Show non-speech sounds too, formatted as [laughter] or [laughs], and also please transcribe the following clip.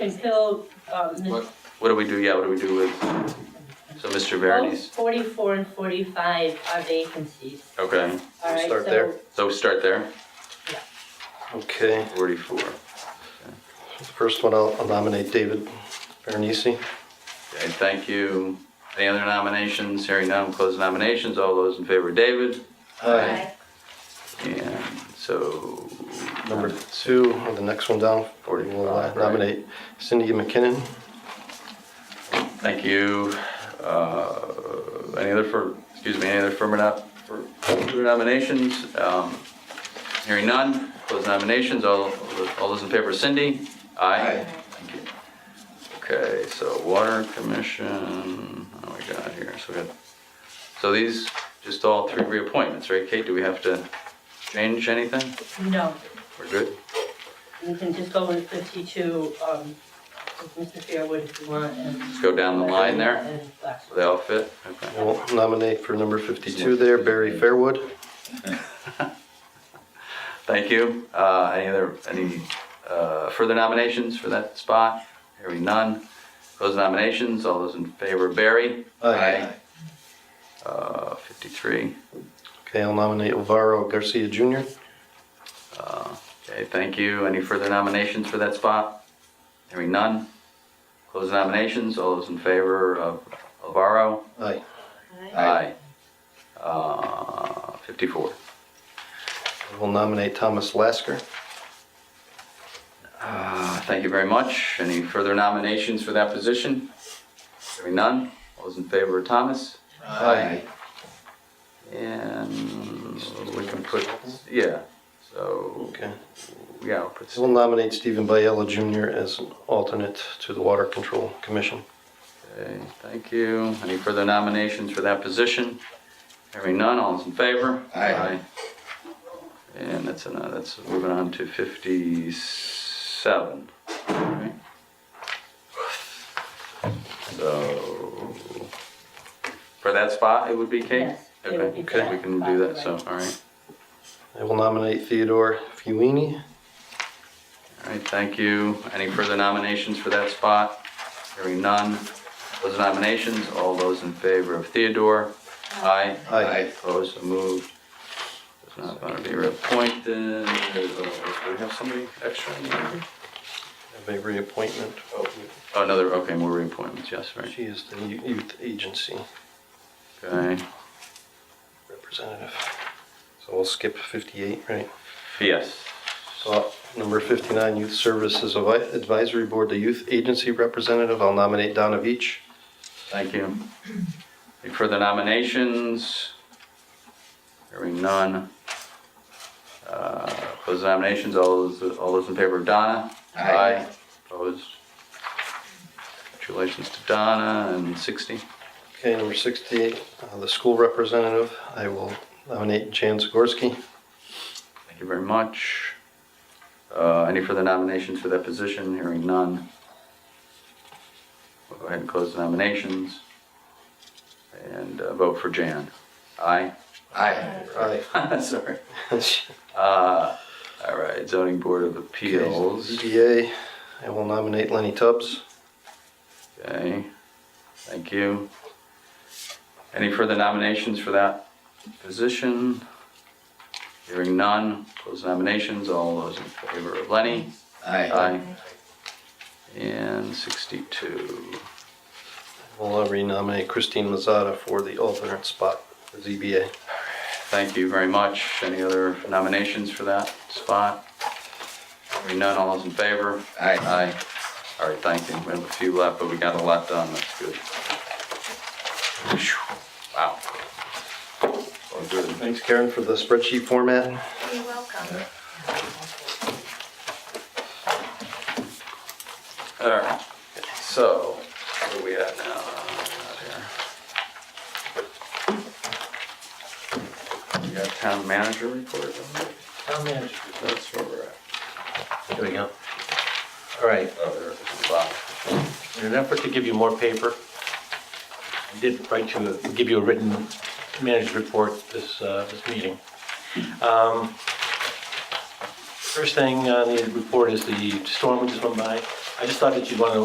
until, um, What what do we do, yeah, what do we do with, so Mr. both Verity's, forty-four and forty-five are vacancies, okay, all right? Start so- there. so we start there, Okay, forty-four. the first one, I'll I'll nominate David Berenice. Okay, thank you. Any other nominations? Hearing none, close nominations, all those in favor, David? Aye. And so, Number two, or the next one down, we'll uh, Forty-five, right. nominate Cindy McKinnon. thank you. Uh, Any other for, excuse me, any other firm or not, for for nominations? Um, Hearing none, close nominations, all, all those in favor, Cindy? Aye. Thank you. Okay, so water commission, oh my god, here, so we got, so these, just all three reappointments, right, Kate? Do we have to change anything? No, We're good? you can just go with fifty-two, um, with Mr. Fairwood if you want, and. Just go down the line there, And last so they all fit? Okay. We'll nominate for number 52 there, Barry Fairwood. Thank you. Uh, any other, any, uh, further nominations for that spot? Hearing none. Close nominations. All those in favor, Barry? Uh, fifty-three. Okay, I'll nominate Alvaro Garcia Jr. Okay, thank you. Any further nominations for that spot? Hearing none. Close nominations. All those in favor of Alvaro? Aye. Aye. Uh, fifty-four. We'll nominate Thomas Lasker. Uh, Thank you very much. Any further nominations for that position? Hearing none. All those in favor of Thomas? Aye. And we can put, yeah, so, Okay, yeah, I'll put, we'll nominate Stephen Biella Jr. as an alternate to the Water Control Commission. okay, thank you. Any further nominations for that position? Hearing none, all those in favor? Aye. Aye. And that's enough, that's moving on to fifty-seven. right? So, for that spot, it would be Kate? Yes, it would be for Okay, we that can spot, do that, so, right. all right. I will nominate Theodore Fuini. All right, thank you. Any further nominations for that spot? Hearing none. Those nominations, all those in favor of Theodore? Aye. Aye. Opposed, so moved. Does not want to be reappointed. Do we have somebody extra in there? Have a reappointment. Oh, Another, okay, more reappointments, yes, right. She is the Yo- Youth Agency Okay, Representative. So we'll skip 58, right? yes. So uh, number 59, Youth Services Avi- Advisory Board, the Youth Agency Representative, I'll nominate Donna Veach. Thank you. Any further nominations? Hearing none. Uh, Close the nominations, all those, all those in favor of Donna? Aye. Opposed? Congratulations to Donna and 60. Okay, number 68, uh, the School Representative, I will nominate Jan Zagorski. Thank you very much. Uh, Any further nominations for that position? Hearing none. We'll go ahead and close the nominations. And uh, vote for Jan. Aye? [laughs] Aye. [laughs] Aye. Sorry. Uh, all right, zoning board of appeals. ZBA, I will nominate Lenny Tubbs. Okay, thank you. Any further nominations for that position? Hearing none, close nominations, all those in favor of Lenny? Aye. Aye. And sixty-two. I will uh, renominate Christine Mazzata for the alternate spot for ZBA. Thank you very much. Any other nominations for that spot? Hearing none, all those in favor? Aye. Aye. All right, thank you. We have a few left, but we got a lot done. That's good. Phew. Wow. All good. Thanks, Karen, for the spreadsheet format. You're welcome. All right. So, what do we have now? Out here. We got town manager report. don't we? Town manager, That's where we're at. here we go. All right, Oh, there it is. Wow. in an effort to give you more paper, I did write to give you a written manager's report this, uh, this meeting. Um, First thing on the report is the storm we just went by. I just thought that you'd want to